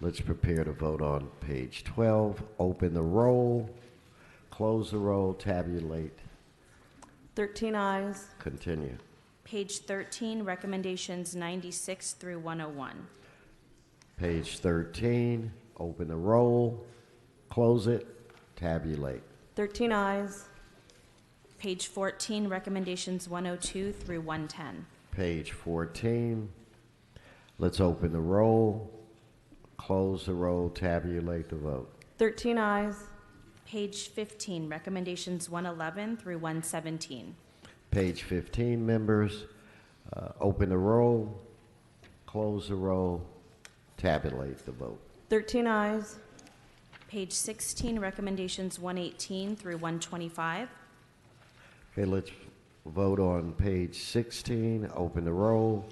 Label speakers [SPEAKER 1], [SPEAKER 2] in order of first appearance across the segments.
[SPEAKER 1] Let's prepare to vote on page 12. Open the roll, close the roll, tabulate,
[SPEAKER 2] 13 eyes.
[SPEAKER 1] continue.
[SPEAKER 3] Page 13, recommendations 96 through 101.
[SPEAKER 1] Page 13, open the roll, close it, tabulate.
[SPEAKER 2] 13 eyes.
[SPEAKER 3] Page 14, recommendations 102 through 110.
[SPEAKER 1] Page 14, let's open the roll, close the roll, tabulate the vote.
[SPEAKER 2] 13 eyes.
[SPEAKER 3] Page 15, recommendations 111 through 117.
[SPEAKER 1] Page 15, members, uh, open the roll, close the roll, tabulate the vote.
[SPEAKER 2] 13 eyes.
[SPEAKER 3] Page 16, recommendations 118 through 125.
[SPEAKER 1] Okay, let's vote on page 16, open the roll,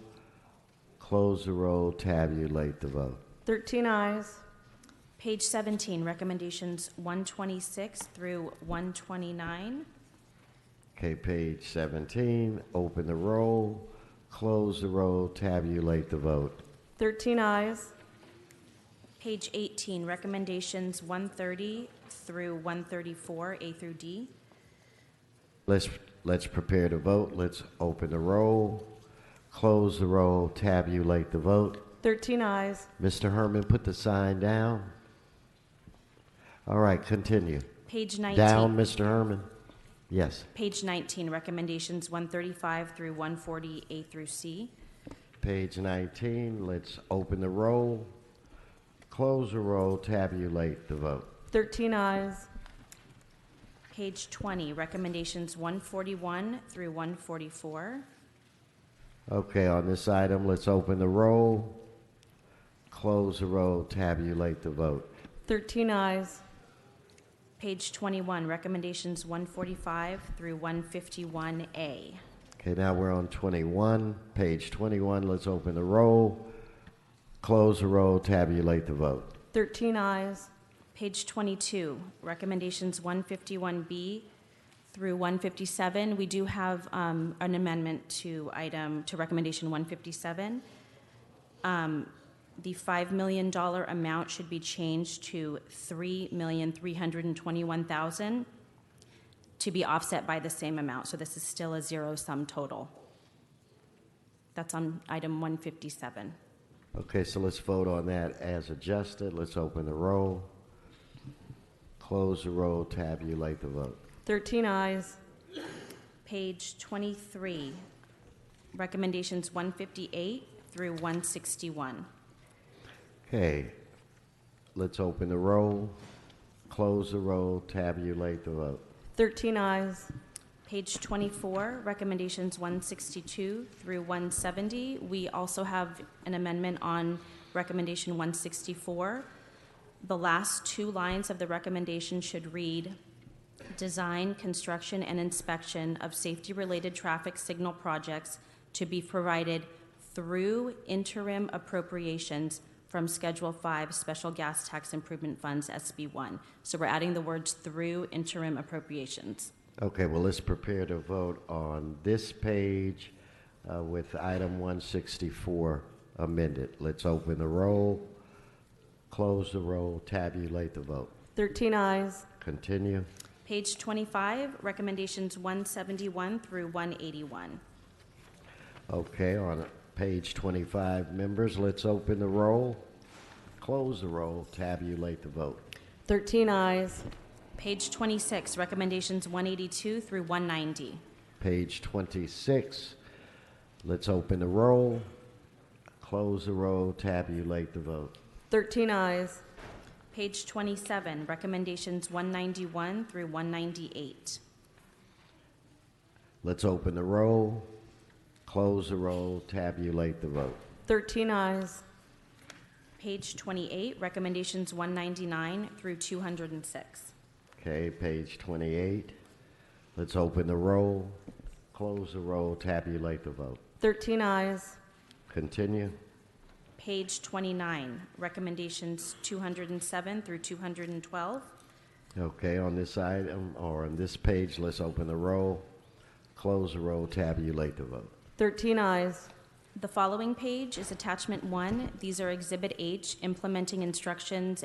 [SPEAKER 1] close the roll, tabulate the vote.
[SPEAKER 2] 13 eyes.
[SPEAKER 3] Page 17, recommendations 126 through 129.
[SPEAKER 1] Okay, page 17, open the roll, close the roll, tabulate the vote.
[SPEAKER 2] 13 eyes.
[SPEAKER 3] Page 18, recommendations 130 through 134, A through D.
[SPEAKER 1] Let's, let's prepare to vote. Let's open the roll, close the roll, tabulate the vote.
[SPEAKER 2] 13 eyes.
[SPEAKER 1] Mr. Herman, put the sign down. All right, continue.
[SPEAKER 3] Page 19.
[SPEAKER 1] Down, Mr. Herman. Yes.
[SPEAKER 3] Page 19, recommendations 135 through 140, A through C.
[SPEAKER 1] Page 19, let's open the roll, close the roll, tabulate the vote.
[SPEAKER 2] 13 eyes.
[SPEAKER 3] Page 20, recommendations 141 through 144.
[SPEAKER 1] Okay, on this item, let's open the roll, close the roll, tabulate the vote.
[SPEAKER 2] 13 eyes.
[SPEAKER 3] Page 21, recommendations 145 through 151A.
[SPEAKER 1] Okay, now we're on 21, page 21, let's open the roll, close the roll, tabulate the vote.
[SPEAKER 2] 13 eyes.
[SPEAKER 3] Page 22, recommendations 151B through 157. We do have um, an amendment to item, to recommendation 157. Um, The $5 million amount should be changed to $3,321,000 to be offset by the same amount. So this is still a zero-sum total. That's on item 157.
[SPEAKER 1] Okay, so let's vote on that as adjusted, let's open the roll, close the roll, tabulate the vote.
[SPEAKER 2] 13 eyes.
[SPEAKER 3] Page 23, recommendations 158 through 161.
[SPEAKER 1] Okay, let's open the roll, close the roll, tabulate the vote.
[SPEAKER 2] 13 eyes.
[SPEAKER 3] Page 24, recommendations 162 through 170. We also have an amendment on recommendation 164. The last two lines of the recommendation should read, "Design, construction, and inspection of safety-related traffic signal projects to be provided through interim appropriations from Schedule 5 Special Gas Tax Improvement Funds, SB1." So we're adding the words "through interim appropriations."
[SPEAKER 1] Okay, well, let's prepare to vote on this page uh, with item 164 amended. Let's open the roll, close the roll, tabulate the vote.
[SPEAKER 2] 13 eyes.
[SPEAKER 1] Continue.
[SPEAKER 3] Page 25, recommendations 171 through 181.
[SPEAKER 1] Okay, on page 25, members, let's open the roll, close the roll, tabulate the vote.
[SPEAKER 2] 13 eyes.
[SPEAKER 3] Page 26, recommendations 182 through 190.
[SPEAKER 1] Page 26, let's open the roll, close the roll, tabulate the vote.
[SPEAKER 2] 13 eyes.
[SPEAKER 3] Page 27, recommendations 191 through 198.
[SPEAKER 1] Let's open the roll, close the roll, tabulate the vote.
[SPEAKER 2] 13 eyes.
[SPEAKER 3] Page 28, recommendations 199 through 206.
[SPEAKER 1] Okay, page 28, let's open the roll, close the roll, tabulate the vote.
[SPEAKER 2] 13 eyes.
[SPEAKER 1] Continue.
[SPEAKER 3] Page 29, recommendations 207 through 212.
[SPEAKER 1] Okay, on this item, or on this page, let's open the roll, close the roll, tabulate the vote.
[SPEAKER 2] 13 eyes.
[SPEAKER 3] The following page is attachment one. These are Exhibit H, implementing instructions and